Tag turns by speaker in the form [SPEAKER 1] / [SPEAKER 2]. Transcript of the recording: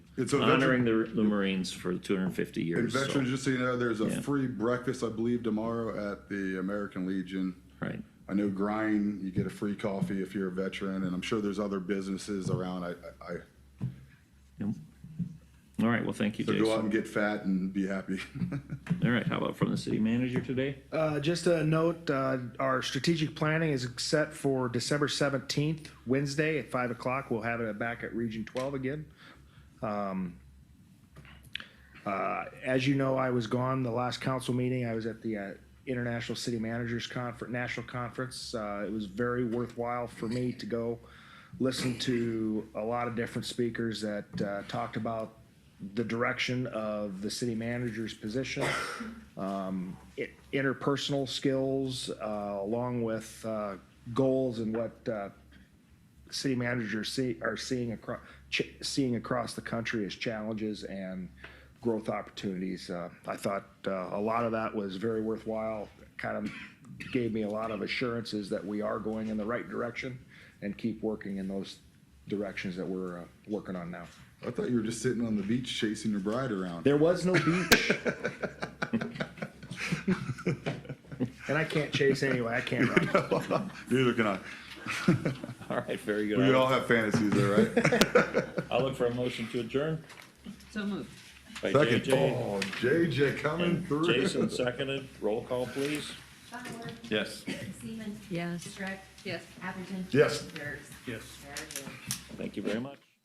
[SPEAKER 1] And so veteran-
[SPEAKER 2] honoring the, the Marines for 250
[SPEAKER 1] And
[SPEAKER 2] years. so-
[SPEAKER 1] veterans, just so you know, there's a
[SPEAKER 2] Yeah.
[SPEAKER 1] free breakfast, I believe, tomorrow at the American Legion.
[SPEAKER 2] right.
[SPEAKER 1] I know Grind, you get a free coffee if you're a veteran, and I'm sure there's other businesses around. I, I,
[SPEAKER 2] Yep. All right. Well, thank you,
[SPEAKER 1] so
[SPEAKER 2] Jason.
[SPEAKER 1] go out and get fat and be happy.
[SPEAKER 2] All right. How about from the city manager today?
[SPEAKER 3] Uh, just a note, uh, our strategic planning is set for December seventeenth, Wednesday at five o'clock. We'll have it back at Region Twelve again. Um, uh, as you know, I was gone the last council meeting. I was at the, uh, International City Managers Conference, National Conference. Uh, it was very worthwhile for me to go listen to a lot of different speakers that, uh, talked about the direction of the city manager's position i- interpersonal skills uh, along with uh, goals and what uh, city managers see are seeing across ch- seeing across the country as challenges and growth opportunities. Uh, I thought uh, a lot of that was very worthwhile. Kind of gave me a lot of assurances that we are going in the right direction and keep working in those directions that we're uh, working on now.
[SPEAKER 1] I thought you were just sitting on the beach chasing your bride around.
[SPEAKER 3] There was no beach. and I can't chase anyway. I can't run.
[SPEAKER 1] Neither can I.
[SPEAKER 2] All right. Very good.
[SPEAKER 1] We
[SPEAKER 2] I'll,
[SPEAKER 1] all have fantasies there, right?
[SPEAKER 2] I'll look for a motion to adjourn.
[SPEAKER 4] So moved.
[SPEAKER 2] By
[SPEAKER 1] Second.
[SPEAKER 2] JJ.
[SPEAKER 1] Oh, JJ coming
[SPEAKER 2] And
[SPEAKER 1] through.
[SPEAKER 2] Jason seconded. Roll call, please.
[SPEAKER 5] Bauer.
[SPEAKER 2] Yes.
[SPEAKER 5] Seaman.
[SPEAKER 4] Yes.
[SPEAKER 5] Shrek.
[SPEAKER 4] Yes.
[SPEAKER 5] Atherton.
[SPEAKER 1] Yes.
[SPEAKER 5] Dirk. Yes.
[SPEAKER 2] Thank you very much.